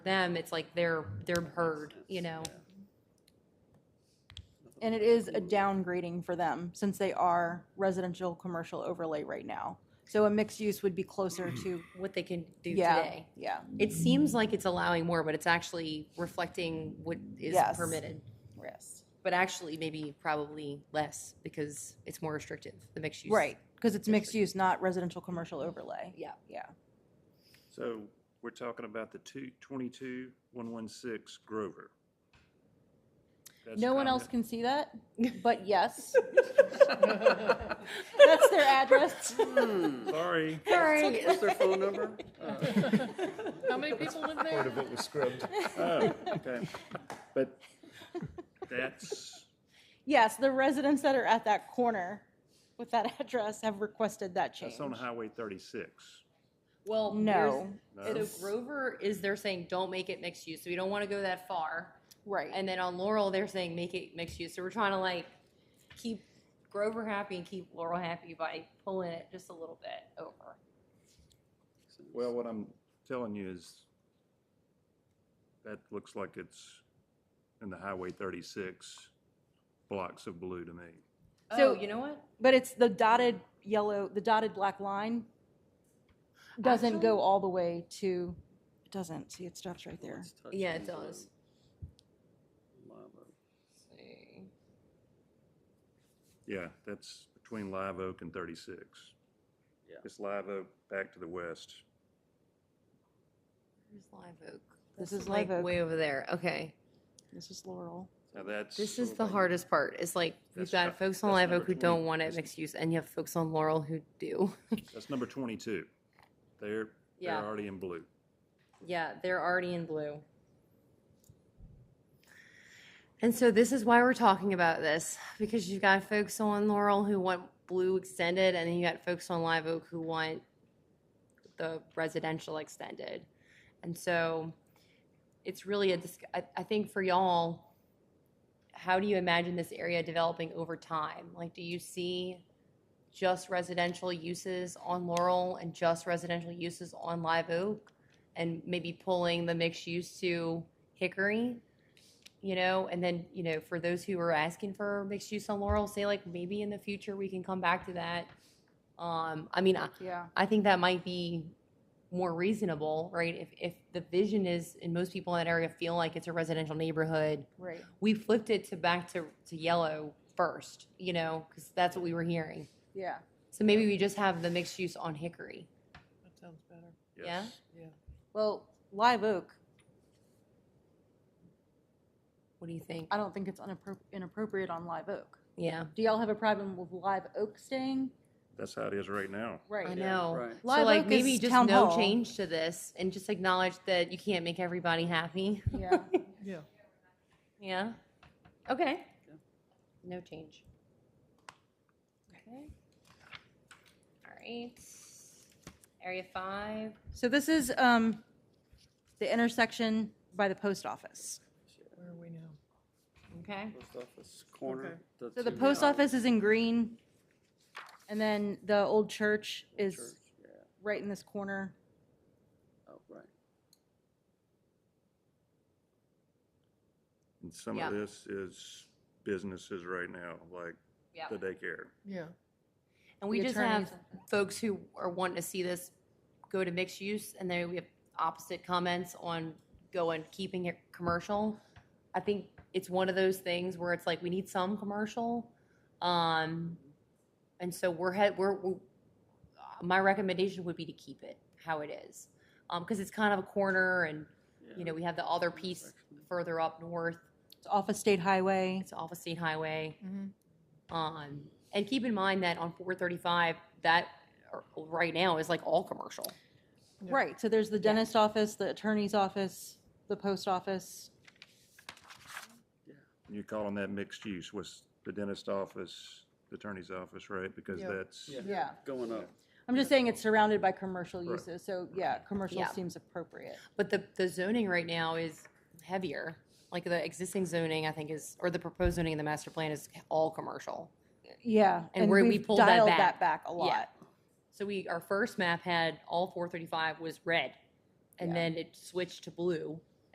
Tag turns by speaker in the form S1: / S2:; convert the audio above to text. S1: them, it's like they're, they're heard, you know?
S2: And it is a downgrading for them since they are residential commercial overlay right now. So a mixed use would be closer to,
S1: What they can do
S2: yeah,
S1: today.
S2: yeah,
S1: It seems like it's allowing more, but it's actually reflecting what is
S2: Yes.
S1: permitted.
S2: yes.
S1: But actually, maybe probably less because it's more restrictive, the mixed use.
S2: Right, because it's mixed use, not residential commercial overlay.
S1: Yeah.
S2: Yeah,
S3: So we're talking about the two, twenty-two, one-one-six Grover. That's
S2: no one else
S3: comment-
S2: can see that, but yes. That's their address.
S3: Sorry,
S1: Sorry.
S4: What's their phone number?
S5: How many people live there?
S6: Part of it was scrubbed.
S3: oh, okay, but that's,
S2: Yes, the residents that are at that corner with that address have requested that change.
S3: that's on Highway thirty-six.
S1: Well,
S2: No.
S1: there's- So Grover is, they're saying, don't make it mixed use, so you don't want to go that far.
S2: Right,
S1: And then on Laurel, they're saying, make it mixed use. So we're trying to like keep Grover happy and keep Laurel happy by pulling it just a little bit over.
S3: Well, what I'm telling you is that looks like it's in the Highway thirty-six blocks of blue to me.
S1: So
S2: So-
S1: Oh, you know what?
S2: but it's the dotted yellow, the dotted black line doesn't go all the way to, it doesn't, see, it stops right there.
S4: Let's touch
S1: Yeah, it
S4: these
S1: does.
S4: on Lima.
S3: Yeah, that's between Live Oak and thirty-six.
S4: Yeah.
S3: It's Live Oak back to the west.
S1: Where's Live Oak?
S2: This
S1: That's,
S2: is Live
S1: like,
S2: Oak.
S1: Way over there. Okay.
S2: This is Laurel.
S3: Now that's.
S1: This is
S3: sort of
S1: the
S3: like-
S1: hardest part. It's like we've
S3: That's
S1: got
S3: not-
S1: folks on
S3: that's
S1: Live
S3: number
S1: Oak who
S3: 20.
S1: don't want it
S3: That's-
S1: mixed use, and you have folks on Laurel who do.
S3: That's number twenty-two. They're, they're
S1: Yeah.
S3: already in blue.
S1: Yeah, they're already in blue. And so this is why we're talking about this because you've got folks on Laurel who want blue extended, and then you got folks on Live Oak who want the residential extended. And so it's really a, dis- I, I think for y'all, how do you imagine this area developing over time? Like, do you see just residential uses on Laurel and just residential uses on Live Oak? and maybe pulling the mixed use to Hickory, you know, and then, you know, for those who are asking for mixed use on Laurel, say like maybe in the future we can come back to that. Um, I mean, I,
S2: Yeah.
S1: I think that might be more reasonable, right? If, if the vision is, and most people in that area feel like it's a residential neighborhood,
S2: Right.
S1: we flipped it to back to, to yellow first, you know, because that's what we were hearing.
S2: Yeah.
S1: So maybe we just have the mixed use on Hickory.
S5: That sounds better.
S1: Yeah?
S3: Yes.
S2: Well, Live Oak,
S1: What do you think?
S2: I don't think it's unappro- inappropriate on Live Oak.
S1: Yeah,
S2: Do y'all have a problem with Live Oak staying?
S3: That's how it is right now.
S2: Right.
S1: I know.
S4: right.
S1: so
S2: Live
S1: like
S2: Oak
S1: maybe
S2: is
S1: just
S2: town
S1: no
S2: hall.
S1: change to this and just acknowledge that you can't make everybody happy.
S2: Yeah.
S5: Yeah.
S1: Yeah. Okay. No change. Okay. All right. Area five.
S2: So this is um, the intersection by the post office.
S5: Where are we now?
S1: Okay.
S4: Post office corner.
S2: So the
S4: two
S2: post
S4: houses.
S2: office is in green, and then the old church is
S4: Church, Yeah,
S2: right in this corner.
S4: oh, right.
S3: And some
S1: Yeah.
S3: of this is businesses right now, like
S1: Yeah.
S3: the daycare.
S5: Yeah.
S1: And we
S2: The
S1: just have
S2: attorneys-
S1: folks who are wanting to see this go to mixed use, and then we have opposite comments on going, keeping it commercial. I think it's one of those things where it's like, we need some commercial. Um, and so we're head, we're, we're, my recommendation would be to keep it how it is. Um, cause it's kind of a corner and, you know, we have the other piece further up north.
S2: It's off a state highway.
S1: It's off of State Highway.
S5: Mm-hmm.
S1: Um, and keep in mind that on four thirty-five, that or- right now is like all commercial.
S5: Yeah.
S2: Right, so there's the dentist office, the attorney's office, the post office.
S3: You call them that mixed use, was the dentist office, the attorney's office, right? Because
S5: Yeah.
S3: that's,
S2: Yeah.
S4: Going up.
S2: I'm just saying it's surrounded by commercial
S3: Right.
S2: uses, so yeah, commercial
S1: Yeah.
S2: seems appropriate.
S1: But the, the zoning right now is heavier. Like the existing zoning, I think is, or the proposed zoning in the master plan is all commercial.
S2: Yeah.
S1: And where we
S2: we've
S1: pulled that
S2: dialed
S1: back.
S2: that back a
S1: Yeah.
S2: lot.
S1: So we, our first map had all four thirty-five was red. And
S2: Yeah.
S1: then it switched to blue.